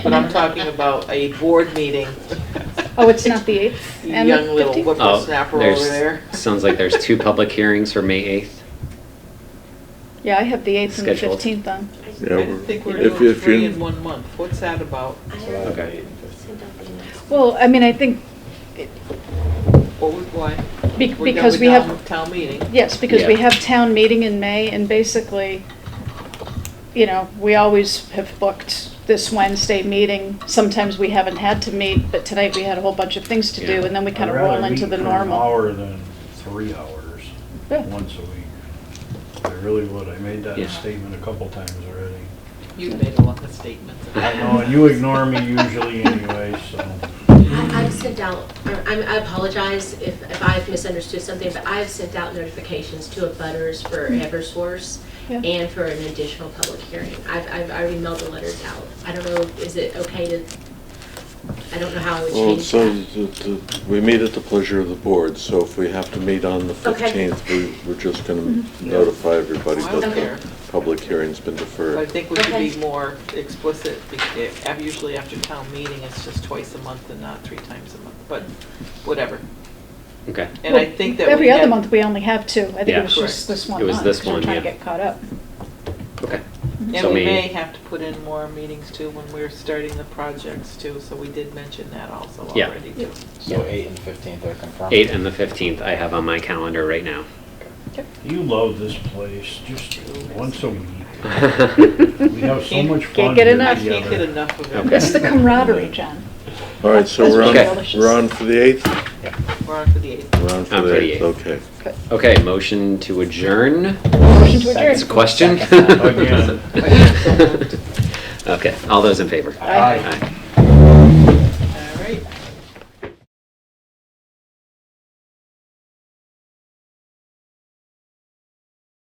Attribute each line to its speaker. Speaker 1: But I'm talking about a board meeting.
Speaker 2: Oh, it's not the 8th?
Speaker 1: You
Speaker 2: and the
Speaker 1: young little
Speaker 2: 15th?
Speaker 3: Oh,
Speaker 1: whippersnapper over
Speaker 3: there's-
Speaker 1: there.
Speaker 3: Sounds like there's two public hearings for May 8th.
Speaker 2: Yeah, I have the 8th and the
Speaker 3: Scheduled.
Speaker 2: 15th on.
Speaker 4: Yeah,
Speaker 1: I
Speaker 4: we're-
Speaker 1: think we're
Speaker 4: if-
Speaker 1: doing
Speaker 4: if you-
Speaker 1: three in one month. What's that about?
Speaker 3: Okay.
Speaker 2: Well, I mean, I think, it-
Speaker 1: What was, why?
Speaker 2: be-
Speaker 1: We're done
Speaker 2: because
Speaker 1: with
Speaker 2: we
Speaker 1: town-
Speaker 2: have,
Speaker 1: Town meeting.
Speaker 2: yes, because we
Speaker 3: Yeah.
Speaker 2: have town meeting in May, and basically, you know, we always have booked this Wednesday meeting. Sometimes we haven't had to meet, but tonight we had a whole bunch of things to do,
Speaker 3: Yeah.
Speaker 2: and then we kind of
Speaker 5: I'd rather
Speaker 2: roll into
Speaker 5: meet
Speaker 2: the
Speaker 5: for an
Speaker 2: normal.
Speaker 5: hour than three hours,
Speaker 2: Yeah.
Speaker 5: once a week. I really would. I made that
Speaker 3: Yeah.
Speaker 5: statement a couple times already.
Speaker 1: You've made a lot of statements.
Speaker 5: I know, and you ignore me usually anyway, so.
Speaker 6: I- I've sent out, or I'm- I apologize if, if I've misunderstood something, but I've sent out notifications to abutters for Eversource
Speaker 2: Yeah.
Speaker 6: and for an additional public hearing. I've, I've already mailed the letters out. I don't know, is it okay to, I don't know how I would
Speaker 4: Well, it
Speaker 6: change that.
Speaker 4: says that the- we meet at the pleasure of the board, so if we have to meet on the
Speaker 6: Okay. Mm-hmm.
Speaker 4: 15th, we, we're just going to notify everybody
Speaker 1: I
Speaker 4: that
Speaker 1: don't
Speaker 4: the
Speaker 1: care.
Speaker 4: public hearing's been
Speaker 1: I
Speaker 4: deferred.
Speaker 1: think we should be
Speaker 6: Okay.
Speaker 1: more explicit. be- eh, Usually after town meeting, it's just twice a month and not three times a month, but whatever.
Speaker 3: Okay.
Speaker 1: And I
Speaker 2: Well,
Speaker 1: think that we
Speaker 2: Every other
Speaker 1: had-
Speaker 2: month, we only have two. I think
Speaker 3: Yeah.
Speaker 2: it was
Speaker 1: Correct.
Speaker 2: just this one
Speaker 3: It
Speaker 2: month.
Speaker 3: was this
Speaker 2: 'cause we're
Speaker 3: one,
Speaker 2: trying to
Speaker 3: yeah.
Speaker 2: get caught up.
Speaker 3: Okay.
Speaker 1: And
Speaker 3: So
Speaker 1: we
Speaker 3: May-
Speaker 1: may have to put in more meetings too when we're starting the projects too, so we did mention that also
Speaker 3: Yeah.
Speaker 1: already too.
Speaker 7: So eight and fifteenth are confirmed?
Speaker 3: 8 and the 15th I have on my calendar right now.
Speaker 5: You love this place, just once a week.
Speaker 3: Okay.
Speaker 5: We have so
Speaker 1: Can't-
Speaker 5: much
Speaker 2: can't
Speaker 5: fun
Speaker 2: get
Speaker 5: here
Speaker 1: I
Speaker 2: enough.
Speaker 1: can't get
Speaker 5: together.
Speaker 1: enough of
Speaker 3: Okay.
Speaker 1: it.
Speaker 2: It's the camaraderie, John.
Speaker 4: All right, so
Speaker 2: That's
Speaker 4: we're
Speaker 3: Okay.
Speaker 4: on,
Speaker 2: delicious.
Speaker 4: we're on for the 8th?
Speaker 1: We're on for the eighth.
Speaker 4: We're on for
Speaker 3: On
Speaker 4: the
Speaker 3: for the
Speaker 4: 8th,
Speaker 3: eighth.
Speaker 4: okay.
Speaker 3: motion to adjourn.
Speaker 2: Motion to adjourn.
Speaker 3: It's a question.
Speaker 5: Again.
Speaker 3: Okay, all those in favor?
Speaker 2: Aye.
Speaker 3: Aye.